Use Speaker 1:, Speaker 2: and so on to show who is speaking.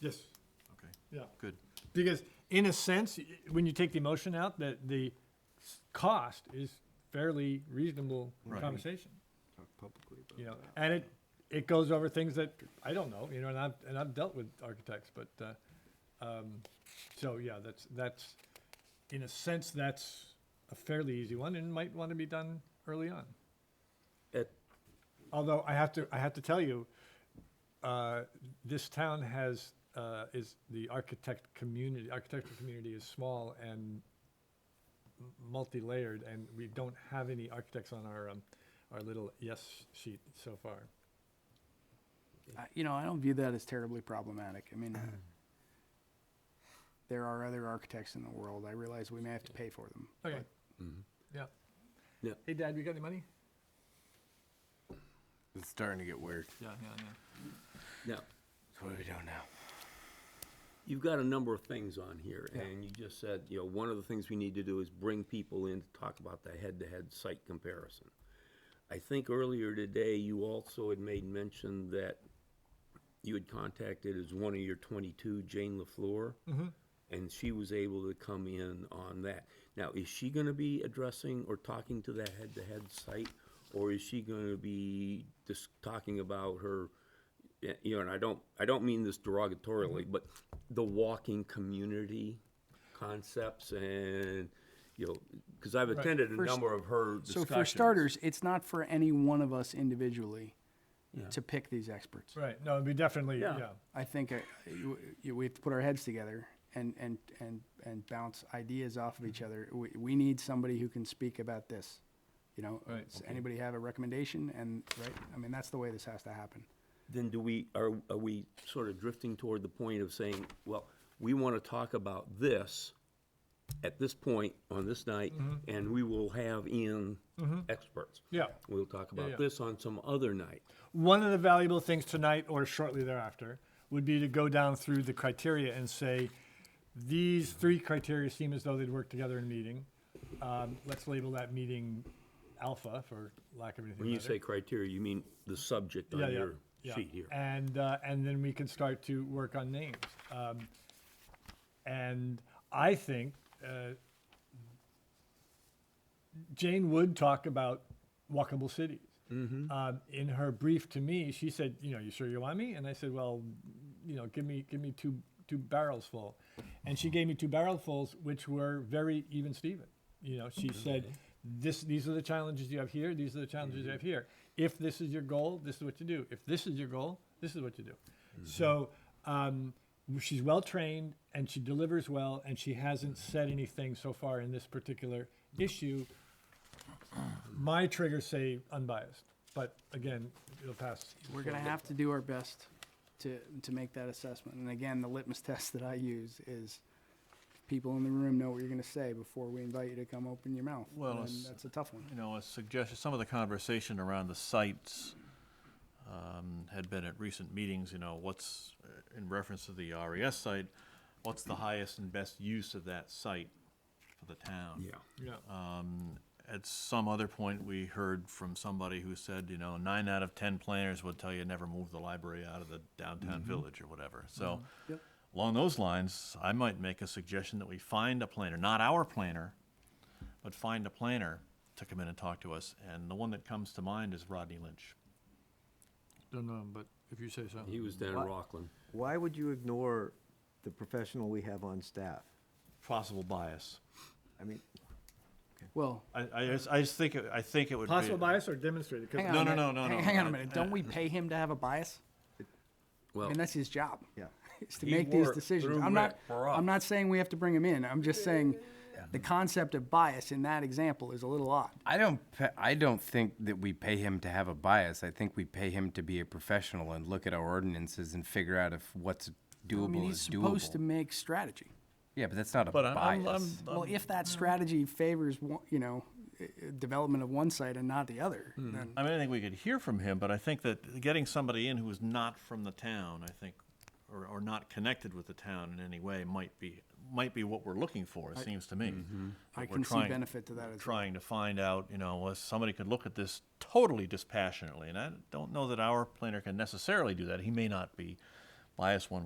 Speaker 1: Yes,
Speaker 2: Okay,
Speaker 1: yeah.
Speaker 2: good.
Speaker 1: Because in a sense, y- when you take the emotion out, that the s- cost is fairly reasonable
Speaker 2: Right.
Speaker 1: conversation.
Speaker 3: talk publicly about
Speaker 1: You know,
Speaker 3: that.
Speaker 1: and it it goes over things that I don't know. You know, and I've and I've dealt with architects, but uh, um, so yeah, that's that's in a sense that's a fairly easy one and might want to be done early on.
Speaker 4: It-
Speaker 1: Although I have to I have to tell you, uh, this town has. Uh, is the architect community architectural community is small and m- multi-layered and we don't have any architects on our um, our little yes sheet so far.
Speaker 5: I- you know, I don't view that as terribly problematic. I mean, there are other architects in the world. I realize we may have to pay for them.
Speaker 1: Okay.
Speaker 4: Mm-hmm.
Speaker 1: Yeah.
Speaker 4: Yeah.
Speaker 1: Hey, Dad, we got any money?
Speaker 3: It's starting to get weird.
Speaker 1: Yeah, yeah, yeah.
Speaker 4: Now,
Speaker 3: So what are we doing now?
Speaker 4: you've got a number of things on here, and you just said, you know, one of the things we need to do is bring people in to talk about the head-to-head site comparison. I think earlier today, you also had made mention that you had contacted as one of your twenty-two, Jane LaFleur.
Speaker 5: Mm-hmm.
Speaker 4: And she was able to come in on that. Now, is she gonna be addressing or talking to that head-to-head site? Or is she gonna be just talking about her, y- you know, and I don't, I don't mean this derogatorily,
Speaker 5: Mm-hmm.
Speaker 4: but the walking community concepts and, you know, cause I've attended a
Speaker 5: First-
Speaker 4: number of her
Speaker 5: So
Speaker 4: discussions.
Speaker 5: for starters, it's not for any one of us individually
Speaker 4: Yeah.
Speaker 5: to pick these experts.
Speaker 1: Right. No, we definitely, yeah.
Speaker 4: Yeah.
Speaker 5: I think uh, you- you- we have to put our heads together and, and, and, and bounce ideas off of each other. We, we need somebody who can speak about this. You know,
Speaker 1: Right.
Speaker 5: does anybody have a recommendation? And, right, I mean, that's the way this has to happen.
Speaker 4: then do we, are, are we sort of drifting toward the point of saying, well, we want to talk about this at this point on this night, and we will have in experts?
Speaker 1: Mm-hmm. Yeah.
Speaker 4: We'll talk
Speaker 1: yeah.
Speaker 4: about this on some other night.
Speaker 1: One of the valuable things tonight or shortly thereafter would be to go down through the criteria and say, these three criteria seem as though they'd work together in a meeting. Um, let's label that meeting alpha for lack of anything
Speaker 4: When you
Speaker 1: better.
Speaker 4: say criteria, you mean the subject on your sheet here.
Speaker 1: And uh, and then we can start to work on names. Um, and I think uh, Jane would talk about walkable cities.
Speaker 4: Mm-hmm.
Speaker 1: Um, in her brief to me, she said, "You know, you sure you want me?" And I said, "Well, you know, give me give me two two barrels full," and she gave me two barrelfuls, which were very even Steven. You know, she said, "This these are the challenges you have here. These are the challenges you have here. If this is your goal, this is what you do. If this is your goal, this is what you do." So. Um, She's well trained and she delivers well, and she hasn't said anything so far in this particular issue my triggers say unbiased, but again, it'll pass.
Speaker 5: We're gonna have to do our best to, to make that assessment. And again, the litmus test that I use is people in the room know what you're gonna say before we invite you to come open your mouth.
Speaker 2: Well,
Speaker 5: And
Speaker 2: it's-
Speaker 5: that's a tough one.
Speaker 2: You know, a suggestion, some of the conversation around the sites um, had been at recent meetings, you know, what's, uh, in reference to the RES site, what's the highest and best use of that site for the town?
Speaker 4: Yeah.
Speaker 1: Yeah.
Speaker 2: Um, At some other point, we heard from somebody who said, you know, nine out of ten planners would tell you never move the library out of the downtown village or whatever. So
Speaker 5: Yep.
Speaker 2: along those lines, I might make a suggestion that we find a planner, not our planner, but find a planner to come in and talk to us. And the one that comes to mind is Rodney Lynch.
Speaker 1: Don't know, but if you say so.
Speaker 4: He was down in Rockland.
Speaker 3: Why would you ignore the professional we have on staff?
Speaker 2: Possible bias.
Speaker 3: I mean,
Speaker 5: Well,
Speaker 2: I, I just, I just think, it- I think it would be.
Speaker 1: Possible bias or demonstrated? 'Cause
Speaker 5: hang on.
Speaker 2: No,
Speaker 5: a
Speaker 2: no, no,
Speaker 5: minute.
Speaker 2: no,
Speaker 5: Hang-
Speaker 2: no.
Speaker 5: Hang on a
Speaker 2: I-
Speaker 5: minute. Don't we pay him to have a bias? I
Speaker 4: Well,
Speaker 5: mean, that's his job.
Speaker 3: Yeah.
Speaker 5: Is to
Speaker 4: He
Speaker 5: make these
Speaker 4: worked
Speaker 5: decisions.
Speaker 4: through
Speaker 5: I'm not,
Speaker 4: Rick for us.
Speaker 5: I'm not saying we have to bring him in. I'm just saying the concept of bias in that example is a little odd.
Speaker 6: I don't. pa- I don't think that we pay him to have a bias. I think we pay him to be a professional and look at our ordinances and figure out if what's doable
Speaker 5: I mean, he's
Speaker 6: is doable.
Speaker 5: supposed to make strategy.
Speaker 6: yeah, but that's not a
Speaker 2: But I'm-
Speaker 6: bias.
Speaker 2: I'm, I'm,
Speaker 5: Well, if that strategy favors, one- you know, i- i- development of one site and not the other, then
Speaker 2: I mean, I think we could hear from him, but I think that getting somebody in who is not from the town, I think, or, or not connected with the town in any way, might be might be what we're looking for. It seems to me.
Speaker 5: I
Speaker 2: That we're
Speaker 5: can see
Speaker 2: trying-
Speaker 5: benefit to that as well.
Speaker 2: Trying to find out, you know, was somebody could look at this totally dispassionately, and I don't know that our planner can necessarily do that. He may not be biased one